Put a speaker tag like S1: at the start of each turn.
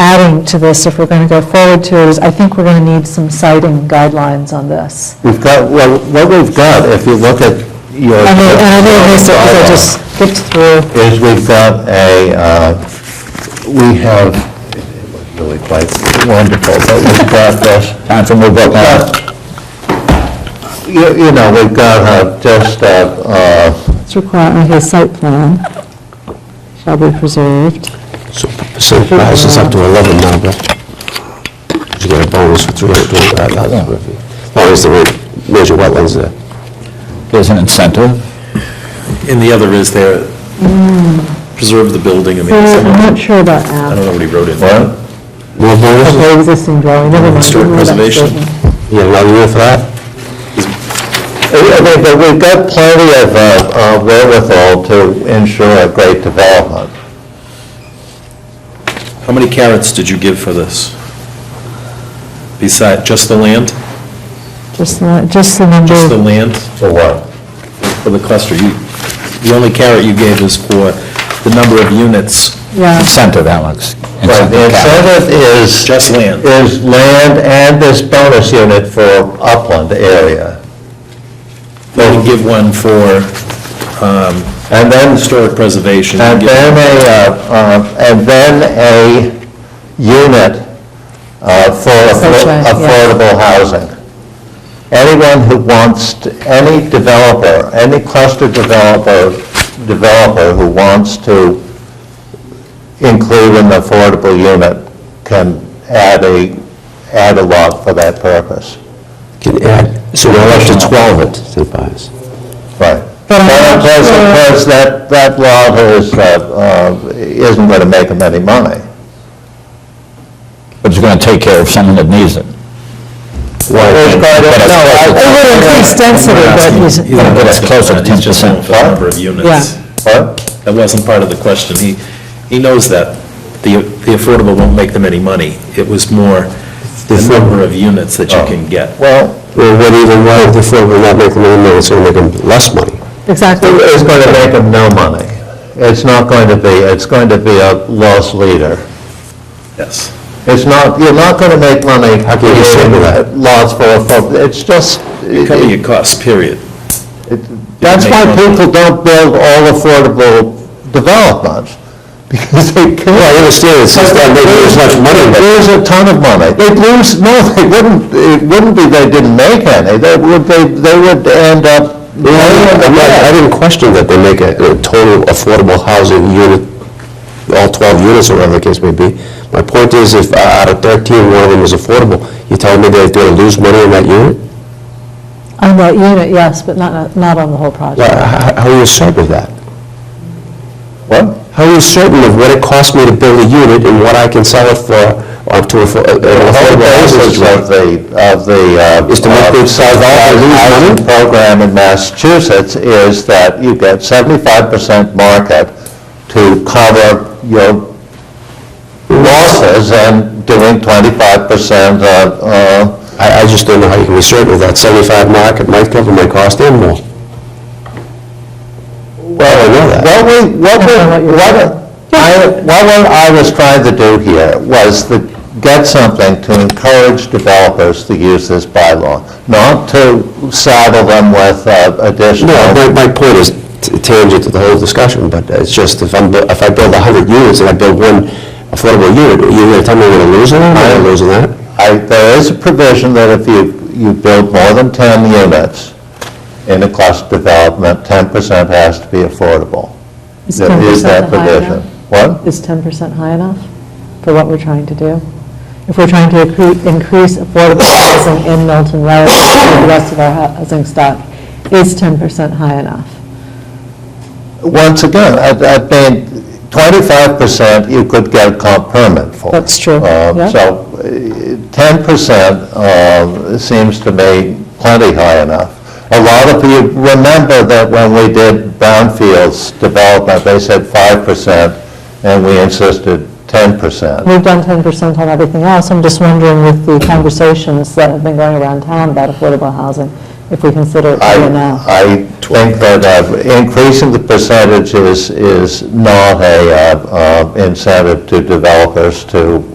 S1: adding to this, if we're going to go forward to it, is I think we're going to need some citing guidelines on this.
S2: We've got, well, what we've got, if you look at your...
S1: I mean, and I know this, because I just skipped through,
S2: Is we've got a, uh, we have, it was really quite wonderful, but we've got this... Time for move up You you know, we've got uh, just, uh, uh,
S1: it's required, okay, site plan shall be preserved.
S3: So, so the house is up to 11 now, but you get a bonus for 325,000 square feet. As long as there weren't major wetlands there.
S4: There's an incentive.
S5: And the other is there, preserve the building, I mean,
S1: I'm
S5: someone-
S1: not sure about
S5: I
S1: that,
S5: don't know what he wrote in there.
S3: More bonus?
S1: the existing dwelling, never mind.
S5: Historic
S1: ignore that
S5: preservation.
S1: statement.
S3: You have another year for that?
S2: I mean, but we've got plenty of uh, uh, wherewithal to ensure a great development.
S5: How many carrots did you give for this? Beside, just the land?
S1: Just the, just the number.
S5: Just the land
S2: For what?
S5: for the cluster? You, the only carrot you gave is for the number of units,
S1: Yeah,
S4: Incentive, Alex.
S2: Right, the
S4: Incentive cap.
S2: incentive is...
S5: just land.
S2: is land and this bonus unit for upland area.
S5: You didn't give one for um,
S2: And then,
S5: historic preservation. You
S2: and
S5: gave-
S2: Uh, then a, uh, uh, and then a unit uh, for
S1: That's right,
S2: affo-
S1: yeah.
S2: affordable housing. Anyone who wants, to- any developer, any cluster developer, developer who wants to include an affordable unit can add a, add a lot for that purpose.
S3: Can add, so now up to 12 it to the buyers.
S2: Right.
S1: But I'm
S2: Well,
S1: not
S2: of course,
S1: sure-
S2: of course, that, that lot is, uh, uh, isn't going to make them any money.
S4: But it's going to take care of someone that needs it.
S2: It's quite a- no, I-
S1: it would increase density, but,
S5: He's
S1: it's-
S5: not
S4: But it's
S5: asking
S4: close
S5: for
S4: to
S5: that. He's just
S4: 10%.
S5: going for the number of units.
S1: Yeah.
S2: What?
S5: That wasn't part of the question. He, he knows that the the affordable won't make them any money. It was more the number of units that
S2: Oh.
S5: you can get.
S2: Well,
S3: Well, what even, why, if they we're not making any money, it's going to make them less money.
S1: exactly.
S2: it's going to make them no money. It's not going to be, it's going to be a loss leader.
S5: Yes.
S2: It's not, you're not going to make money
S3: How can you say that?
S2: creating lots for, affo- it's just,
S5: Cover your costs, period.
S2: that's why
S5: make money.
S2: people don't build all affordable developments, because they can't.
S3: Well, I understand it's just not making as much money,
S2: They'd
S3: but
S2: lose a ton of money. They'd lose, no, they wouldn't, it wouldn't be they didn't make any, they would, they, they would end up laying in the
S3: I'm not- I
S2: bed.
S3: didn't question that they make a a total affordable housing unit, all 12 units or whatever the case may be. My point is, if out of 13, one of them is affordable, you tell me they're going to lose money on that unit?
S1: On that unit, yes, but not, not on the whole
S3: Why-
S1: project.
S3: h- How are you certain of that?
S2: What?
S3: How are you certain of what it costs me to build a unit and what I can sell it for, up to a fo- uh, an
S2: The whole
S3: affordable
S2: basis
S3: housing
S2: of
S3: rate?
S2: the, of the, uh...
S3: Is to make
S2: uh,
S3: them sell that and lose
S2: housing
S3: money?
S2: Program in Massachusetts is that you get seventy-five percent market to cover your losses and doing twenty-five percent of, uh,
S3: I I just don't know how you can be certain of that. 75 market might cover my cost and more.
S2: Well,
S3: I know that.
S2: What we, what we, what, I, what we- I was trying to do here was to get something to encourage developers to use this bylaw, not to saddle them with uh, additional.
S3: No, my, my point is t- tangent to the whole discussion, but it's just if I'm, bu- if I build 100 units and I build one affordable unit, you're going to tell me I'm going to lose it? I'm not losing that.
S2: I, there is a provision that if you, you build more than 10 units in a cluster development, 10% has to be affordable.
S1: Is
S2: There is
S1: 10%
S2: that
S1: high
S2: provision.
S1: enough?
S2: What?
S1: Is 10% high enough for what we're trying to do? If we're trying to accre- increase affordable housing in Milton relative to the rest of our hou- housing stock, is 10% high enough?
S2: Once again, I, I mean, 25% you could get a comp permit for.
S1: That's true,
S2: Uh,
S1: yeah.
S2: So uh, 10% um, seems to me plenty high enough. A lot of you remember that when we did brownfields development, they said 5%, and we insisted 10%.
S1: We've done 10% on everything else, I'm just wondering with the conversations that have been going around town about affordable housing, if we consider it
S2: I,
S1: high enough.
S2: I think that uh, increasing the percentage is, is not a uh, uh, incentive to developers to